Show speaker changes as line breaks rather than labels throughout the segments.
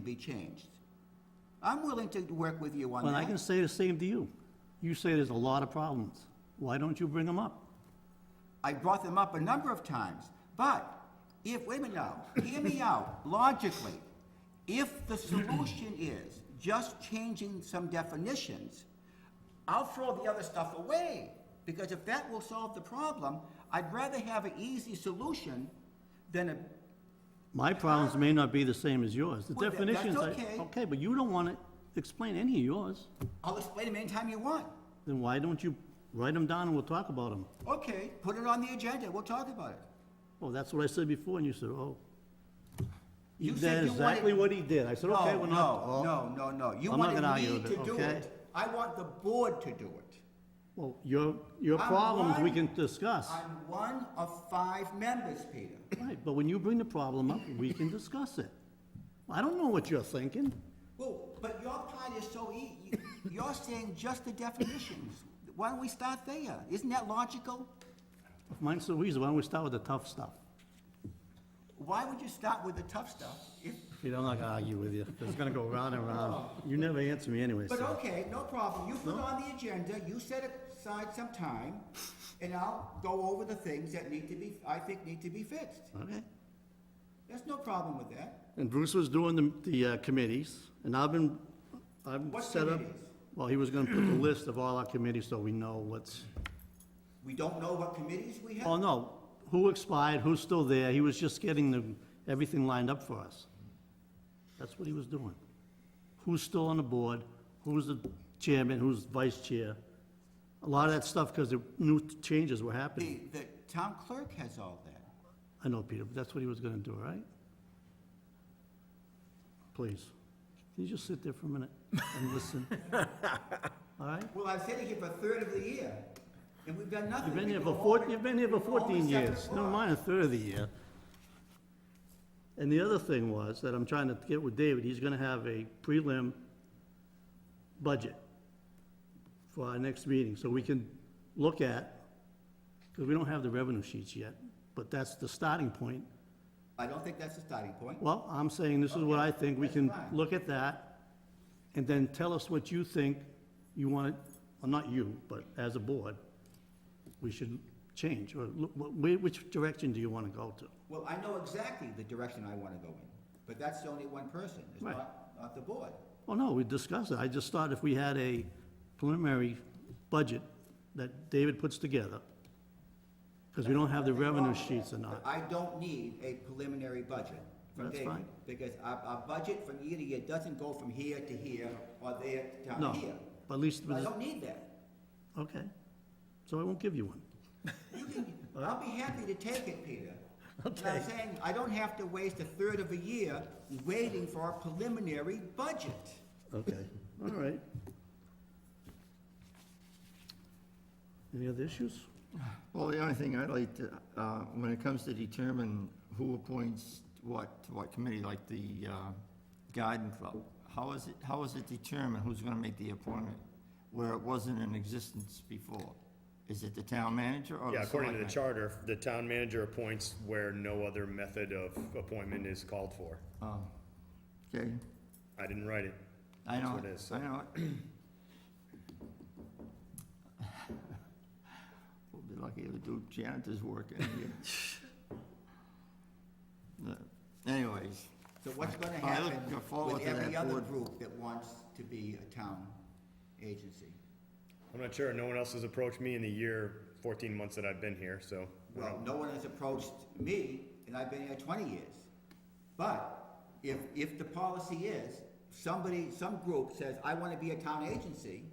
be changed. I'm willing to work with you on
Well, I can
that.
say the same to you. You say there's a lot of problems. Why don't you bring them up?
I brought them up a number of times, but if, wait a minute now, hear me out, logically, if the solution is just changing some definitions, I'll throw the other stuff away, because if that will solve the problem, I'd rather have an easy solution than a
My problems may not be the same as yours. The
Well, that- that's
definitions, I-
okay.
okay, but you don't want to explain any of yours.
I'll explain them anytime you want.
Then why don't you write them down and we'll talk about them?
Okay, put it on the agenda, we'll talk about it.
Oh, that's what I said before, and you said, oh.
You said
That's
you wanted-
exactly what he did. I said, okay,
No,
we're not.
no,
oh,
no, no, no. You
I'm not
wanted
gonna argue
me
with
to
it,
do
okay?
it. I want the board to do it.
Well, your, your
I'm
problems we
one-
can discuss.
I'm one of five members, Peter.
Right, but when you bring the problem up, we can discuss it. I don't know what you're thinking.
Well, but your part is so ea- you- you're saying just the definitions. Why don't we start there? Isn't that logical?
If Mine's so easy, why don't we start with the tough stuff?
Why would you start with the tough stuff? If-
You know, I'm not gonna argue with you, it's gonna go round and round. You never answer me anyway,
But
so.
okay, no problem. You put on the agenda, you set aside some time, and I'll go over the things that need to be, I think need to be fixed.
Okay.
There's no problem with that.
And Bruce was doing the, the uh, committees, and I've been, I've
What
set up.
committees?
Well, he was gonna put the list of all our committees, so we know what's,
We don't know what committees we
oh,
have.
no, who expired, who's still there, he was just getting the, everything lined up for us. That's what he was doing. Who's still on the board, who's the chairman, who's vice chair. A lot of that stuff, because the new changes were happening.
The, the town clerk has all that.
I know, Peter, but that's what he was gonna do, all right? Please, can you just sit there for a minute and listen? All right?
Well, I've sitting here for a third of the year, and we've done nothing.
You've been
We
here
go
for four,
over-
you've been here for
we go over
fourteen
seven
years, never
o'clock.
mind a third of the year. And the other thing was, that I'm trying to get with David, he's gonna have a prelim budget for our next meeting, so we can look at, because we don't have the revenue sheets yet, but that's the starting point.
I don't think that's the starting point.
Well, I'm saying this is what I think, we can
that's fine.
look at that, and then tell us what you think you want, well, not you, but as a board, we should change, or look- wh- wh- which direction do you want to go to?
Well, I know exactly the direction I want to go in, but that's only one person, it's
Right.
not, not the board.
Well, Oh, no, we discussed it, I just thought if we had a preliminary budget that David puts together, because we don't have the revenue sheets or not,
I don't need a preliminary budget from
That's
David,
fine.
because our, our budget from year to year doesn't go from here to here or there to
no,
down here.
but at least,
I don't need that.
okay, so I won't give you one.
You can, I'll be happy to take it, Peter. But
Okay.
I'm saying, I don't have to waste a third of a year waiting for a preliminary budget.
Okay, all right. Any other issues?
Well, the only thing I'd like to, uh, when it comes to determine who appoints what, to what committee, like the uh, garden club, how is it, how is it determined who's gonna make the appointment where it wasn't in existence before? Is it the town manager or the
Yeah, according to the
selectman?
charter, the town manager appoints where no other method of appointment is called for.
Oh, Okay,
I didn't write it.
I
That's
know,
what it is.
I know. it. We'll be lucky if we do janitor's work in here. But Anyways.
So what's gonna
I look
happen
forward
with
to that
every other
board.
group that wants to be a town agency?
I'm not sure, no one else has approached me in the year, fourteen months that I've been here, so. I
Well,
don't-
no one has approached me, and I've been here twenty years. But if, if the policy is, somebody, some group says, I wanna be a town agency,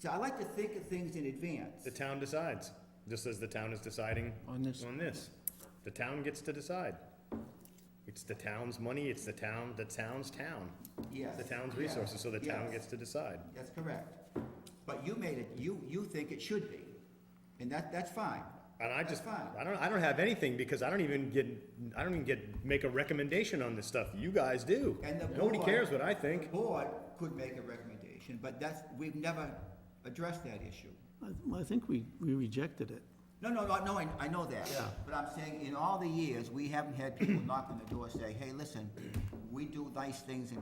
so I like to think of things in advance.
The town decides, just as the town is deciding on this. The town gets to decide. It's the town's money, it's the town, the town's town.
Yes,
The town's
yes,
resources, so the town
yes.
gets to decide.
That's correct. But you made it, you, you think it should be, and that, that's fine.
And I
That's
just,
fine.
I don't, I don't have anything because I don't even get, I don't even get, make a recommendation on this stuff. You guys do.
And the
Nobody
board-
cares what I
The
think.
board could make a recommendation, but that's, we've never addressed that issue.
I, I think we, we rejected it.
No, no, no, no, I, I know that. Yeah. But I'm saying, in all the years, we haven't had people knock on the door say, hey, listen, we do nice things in